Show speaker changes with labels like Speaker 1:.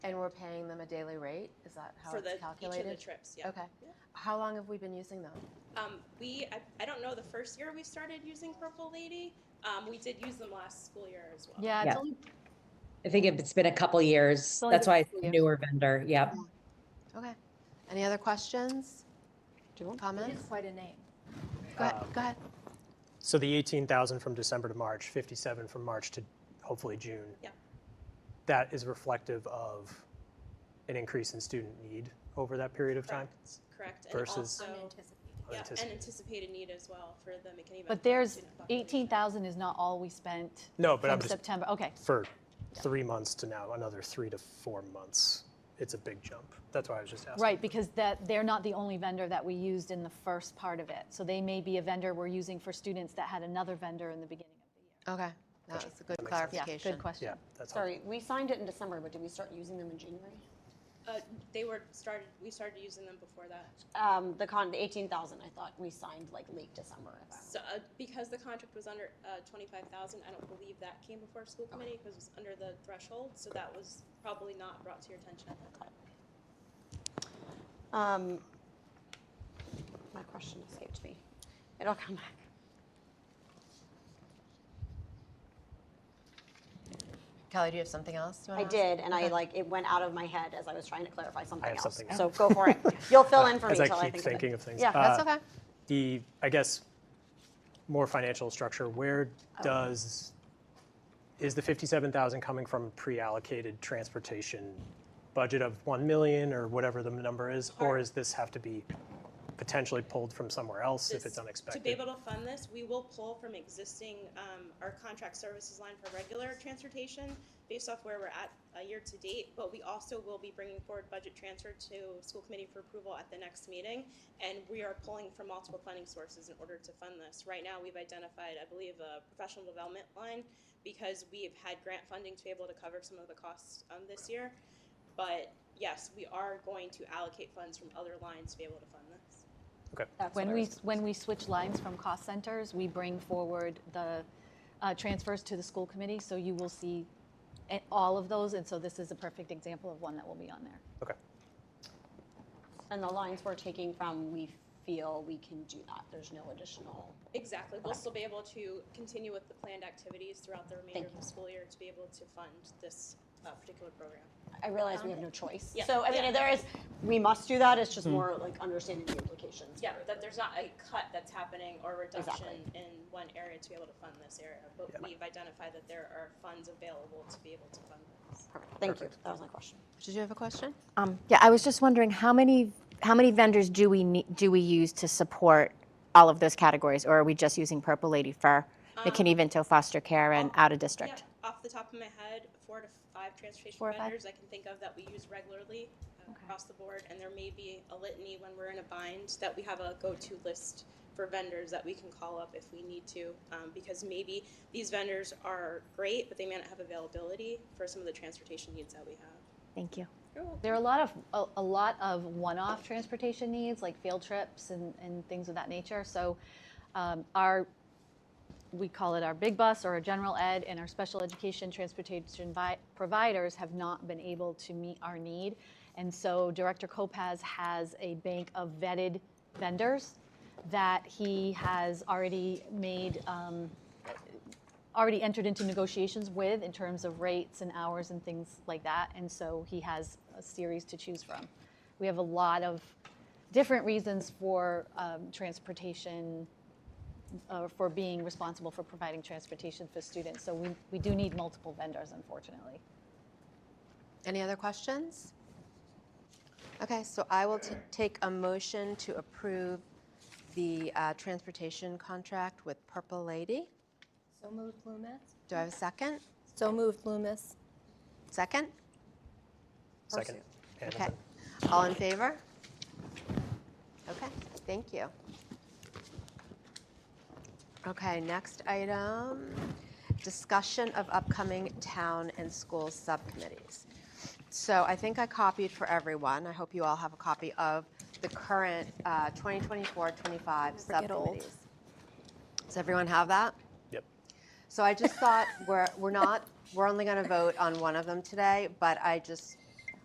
Speaker 1: And we're paying them a daily rate? Is that how
Speaker 2: for
Speaker 1: it's
Speaker 2: the each of
Speaker 1: calculated?
Speaker 2: the trips. Yeah.
Speaker 1: Okay.
Speaker 2: Yeah.
Speaker 1: How long have we been using them?
Speaker 2: Um, we I, I don't know the first year we started using Purple Lady. Um, we did use them last school year as well.
Speaker 1: Yeah, it's
Speaker 3: Yeah.
Speaker 1: only,
Speaker 3: I think if it's been a couple years,
Speaker 1: only
Speaker 3: that's
Speaker 1: been
Speaker 3: why
Speaker 1: a
Speaker 3: it's
Speaker 1: couple
Speaker 3: a
Speaker 1: years.
Speaker 3: newer vendor, yep.
Speaker 1: okay. Any other questions? Comments?
Speaker 4: Quite a name.
Speaker 1: Go ahead, go ahead.
Speaker 5: So the 18,000 from December to March, 57 from March to hopefully June.
Speaker 2: Yeah.
Speaker 5: That is reflective of an increase in student need over that period of time?
Speaker 2: Correct. Correct. And
Speaker 5: Versus-
Speaker 2: also, yeah, and
Speaker 5: Unanticipated.
Speaker 2: anticipated need as well for the McKinney. Valley
Speaker 4: But there's,
Speaker 2: student population.
Speaker 4: 18,000 is not all we spent.
Speaker 5: No, but
Speaker 4: from
Speaker 5: I'm just-
Speaker 4: September, okay.
Speaker 5: For three months to now, another three to four months, it's a big jump. That's why I was just asking.
Speaker 4: Right, because that, they're not the only vendor that we used in the first part of it. So they may be a vendor we're using for students that had another vendor in the beginning of the year.
Speaker 1: Okay, that was a good
Speaker 4: Yeah,
Speaker 5: makes sense.
Speaker 1: clarification.
Speaker 4: good question.
Speaker 5: Yeah, that's all.
Speaker 6: Sorry, we signed it in December, but did we start using them in January?
Speaker 2: Uh, they were started. We started using them before that,
Speaker 6: Um, the con, the eighteen thousand, I thought we signed like late December. if I remember.
Speaker 2: so, uh, because the contract was under uh, twenty-five thousand. I don't believe that came before school committee because it was under the threshold. So that was probably not brought to your attention at that time.
Speaker 6: Um, my question escaped me. It'll come back.
Speaker 1: Kelly, do you have something else? you wanna
Speaker 6: I
Speaker 1: ask?
Speaker 6: did, and I like, it went out of my head as I was trying to clarify something
Speaker 5: have
Speaker 6: else.
Speaker 5: something
Speaker 6: So go for it. You'll fill in for me
Speaker 5: As
Speaker 6: till
Speaker 5: I
Speaker 6: I think of it.
Speaker 5: keep thinking of things.
Speaker 6: Yeah,
Speaker 5: Uh,
Speaker 1: That's okay.
Speaker 5: The, I guess, more financial structure, where
Speaker 2: Oh.
Speaker 5: does, is the 57,000 coming from pre-allocated transportation budget of 1 million or whatever the number is? Or
Speaker 2: Our-
Speaker 5: is this have to be potentially pulled from somewhere else if
Speaker 2: this-
Speaker 5: it's
Speaker 2: To be
Speaker 5: unexpected?
Speaker 2: able to fund this, we will pull from existing, um, our contract services line for regular transportation based off where we're at, uh, year to date, but we also will be bringing forward budget transfer to school committee for approval at the next meeting. And we are pulling from multiple funding sources in order to fund this. Right now, we've identified, I believe, a professional development line because we've had grant funding to be able to cover some of the costs, um, this year. But yes, we are going to allocate funds from other lines to be able to fund this.
Speaker 5: Okay,
Speaker 6: That's what
Speaker 4: When
Speaker 6: I
Speaker 4: we,
Speaker 6: was-
Speaker 4: when we switch lines from cost centers, we bring forward the uh, transfers to the school committee, so you will see a- all of those, and so this is a perfect example of one that will be on there.
Speaker 5: okay.
Speaker 6: And the lines we're taking from, we feel we can do that. There's no additional.
Speaker 2: Exactly. We'll still be able to continue with the planned activities throughout the remainder
Speaker 6: Thank
Speaker 2: of the school year to be able to fund this uh, particular program.
Speaker 6: I realize we have no choice.
Speaker 2: yeah,
Speaker 6: So, I
Speaker 2: yeah.
Speaker 6: mean, there is, we must do that. It's just
Speaker 5: Hmm.
Speaker 6: more like understanding the implications.
Speaker 2: Yeah, that there's not a cut that's happening or reduction
Speaker 6: Exactly.
Speaker 2: in one area to be able to fund this area, but we've identified that there are funds available to be able to fund this.
Speaker 6: Perfect. Thank you. That was my question.
Speaker 1: Did you have a question?
Speaker 7: Um, yeah, I was just wondering how many how many vendors do we need, do we use to support all of those categories, or are we just using Purple Lady for McKinney Vento foster care and out of
Speaker 2: Yeah,
Speaker 7: district?
Speaker 2: off the top of my head, four to five transportation
Speaker 7: Four or five?
Speaker 2: vendors I can think of that we use regularly uh, across the board, and there may be a litany when we're in a bind that we have a go-to list for vendors that we can call up if we need to, um, because maybe these vendors are great, but they may not have availability for some of the transportation needs that we have.
Speaker 7: Thank you.
Speaker 4: There are a lot of a, a lot of one-off transportation needs, like field trips and, and things of that nature. So, um, our we call it our big bus or our general ed and our special education transportation vi- providers have not been able to meet our need, and so Director Kopaz has a bank of vetted vendors that he has already made. Um, already entered into negotiations with in terms of rates and hours and things like that. And so he has a series to choose from. We have a lot of different reasons for um, transportation, uh, for being responsible for providing transportation for students. So we, we do need multiple vendors, unfortunately.
Speaker 1: Any other questions? Okay, so I will t- take a motion to approve the uh, transportation contract with Purple Lady.
Speaker 8: So moved Loomis.
Speaker 1: Do I have a second?
Speaker 8: So moved Loomis.
Speaker 1: Second?
Speaker 5: Second.
Speaker 1: Okay.
Speaker 5: Hamilton.
Speaker 1: All in favor? Okay, thank you. Okay, next item, discussion of upcoming town and school subcommittees. So I think I copied for everyone. I hope you all have a copy of the current uh, 2024-25
Speaker 8: Never get old.
Speaker 1: subcommittees. Does everyone have that?
Speaker 5: Yep.
Speaker 1: So I just thought we're, we're not, we're only going to vote on one of them today, but I just